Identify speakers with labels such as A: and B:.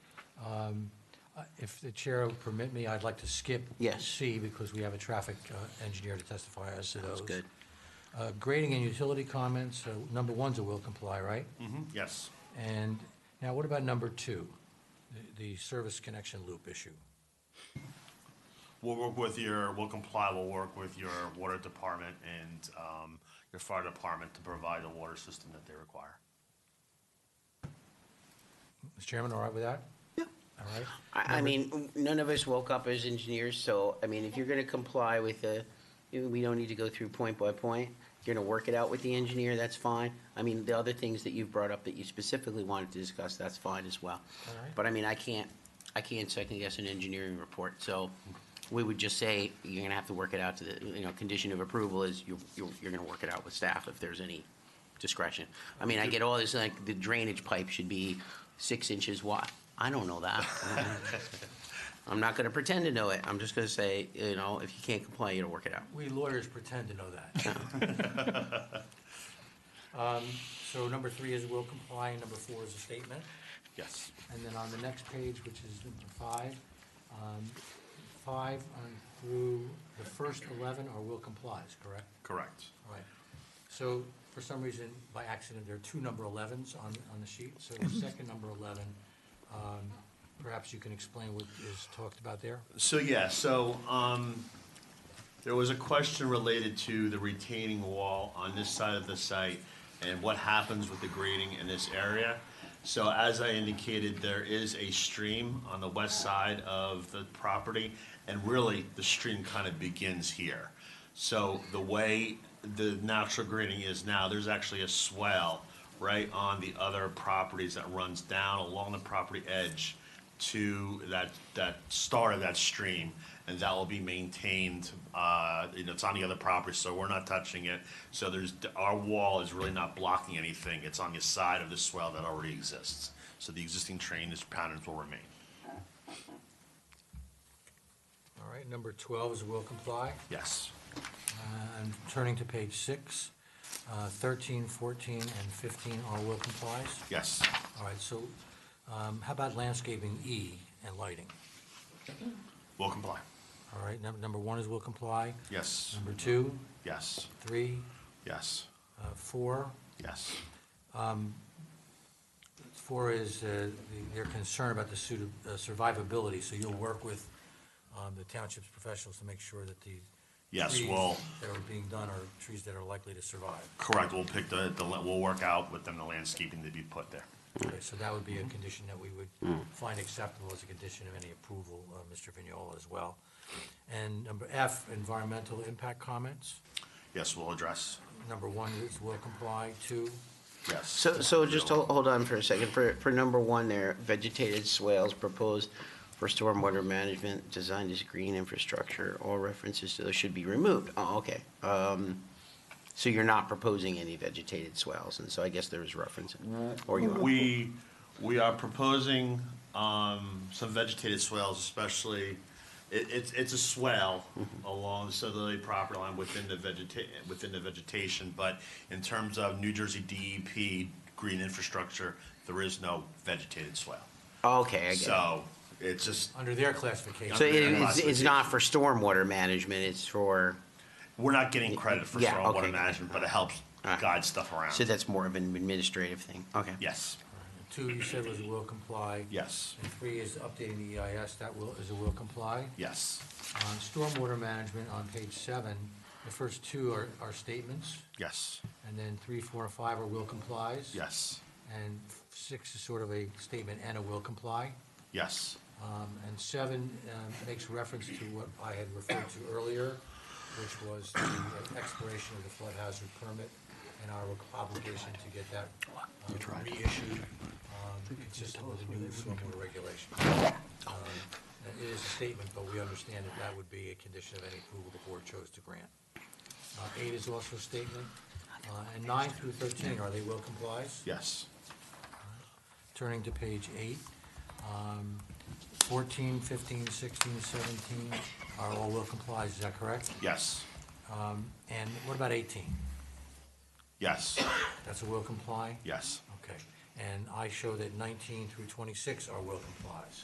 A: um, uh, if the chair would permit me, I'd like to skip
B: Yes.
A: C because we have a traffic uh, engineer to testify as to those.
B: Sounds good.
A: Uh, Grading and utility comments, uh, number one's a will comply, right?
B: Hmm.
C: Mhm, Yes.
A: And now what about number two, the- the service connection loop issue?
C: We'll work with your, we'll comply, we'll work with your water department and um, your fire department to provide the water system that they require.
A: Mr. Chairman, all right with that? Yeah. All right?
B: I, I mean, none of us woke up as engineers, so, I mean, if you're gonna comply with the, we don't need to go through point by point. If You're gonna work it out with the engineer, that's fine. I mean, the other things that you've brought up that you specifically wanted to discuss, that's fine as well.
A: Alright.
B: But I mean, I can't, I can't second guess an engineering report, so we would just say, you're gonna have to work it out to the, you know, condition of approval is you're, you're, you're gonna work it out with staff if there's any discretion. I mean, I get all this, like, the drainage pipe should be six inches wide. I don't know that. I'm not gonna pretend to know it. I'm just gonna say, you know, if you can't comply, you gotta work it out.
A: We lawyers pretend to know that. Um, So number three is will comply, and number four is a statement.
C: Yes.
A: And then on the next page, which is number five, um, five on through the first 11 are will complies, correct?
C: Correct.
A: All right. So for some reason, by accident, there are two number 11s on, on the sheet. So the second number 11, um, perhaps you can explain what is talked about there?
C: So, yeah, so um, there was a question related to the retaining wall on this side of the site and what happens with the grading in this area. So as I indicated, there is a stream on the west side of the property, and really, the stream kind of begins here. So the way the natural grading is now, there's actually a swell right on the other properties that runs down along the property edge to that, that start of that stream, and that will be maintained, uh, you know, it's on the other property, so we're not touching it. So there's, our wall is really not blocking anything, it's on the side of the swell that already exists. So the existing drainage patterns will remain.
A: All right, number 12 is will comply.
C: Yes.
A: And turning to page six, uh, 13, 14, and 15 are will complies.
C: Yes.
A: All right, so um, how about landscaping E and lighting?
C: Will comply.
A: All right, number, number one is will comply,
C: Yes.
A: number two,
C: Yes.
A: three,
C: Yes.
A: uh, four.
C: Yes.
A: Four is uh, the- their concern about the suit of- uh, survivability, so you'll work with um, the township's professionals to make sure that the
C: Yes,
A: trees
C: well-
A: that are being done are trees that are likely to survive.
C: Correct, we'll pick the, the, we'll work out with them the landscaping to be put there.
A: Okay, so that would be a condition that we
C: Hmm.
A: would find acceptable as a condition of any approval, uh, Mr. Vignola as well. And number F, environmental impact comments.
C: Yes, we'll address,
A: Number one is will comply, two,
C: yes.
B: So, so just hol- hold on for a second. For, for number one there, vegetated swales proposed for stormwater management designed as green infrastructure. All references to those should be removed. Oh, okay. Um, so you're not proposing any vegetated swales, and so I guess there was reference, or you are.
C: We, we are proposing, um, some vegetated swales, especially, it, it's, it's a swale
B: Mm-hmm.
C: along the southerly property line within the vegeta- within the vegetation, but in terms of New Jersey DEP green infrastructure, there is no vegetated swale.
B: Okay, I get it.
C: So, it's just,
A: under their classification.
B: So it-
C: Yeah,
B: it's, it's
C: classification.
B: not for stormwater management, it's for,
C: we're not getting credit for
B: Yeah, okay.
C: stormwater management, but it helps
B: All right.
C: guide stuff around.
B: so that's more of an administrative thing. Okay.
C: Yes,
A: Two, you said was will comply.
C: yes,
A: And three is updating the EIS, that will, is a will comply.
C: yes,
A: On stormwater management on page seven, the first two are, are statements,
C: yes,
A: and then three, four, and five are will complies.
C: yes,
A: And six is sort of a statement and a will comply.
C: yes,
A: Um, And seven um, makes reference to what I had referred to earlier, which was the expiration of the flood hazard permit and our obligation to get that um, reissued, um, consistent with the new formula regulation. Um, It is a statement, but we understand that that would be a condition of any approval the board chose to grant. Uh, Eight is also a statement, uh, and nine through 13, are they will complies?
C: yes,
A: Turning to page eight, um, 14, 15, 16, 17 are all will complies, is that correct?
C: yes,
A: And what about 18?
C: yes,
A: That's a will comply?
C: yes.
A: Okay. And I show that 19 through 26 are will complies.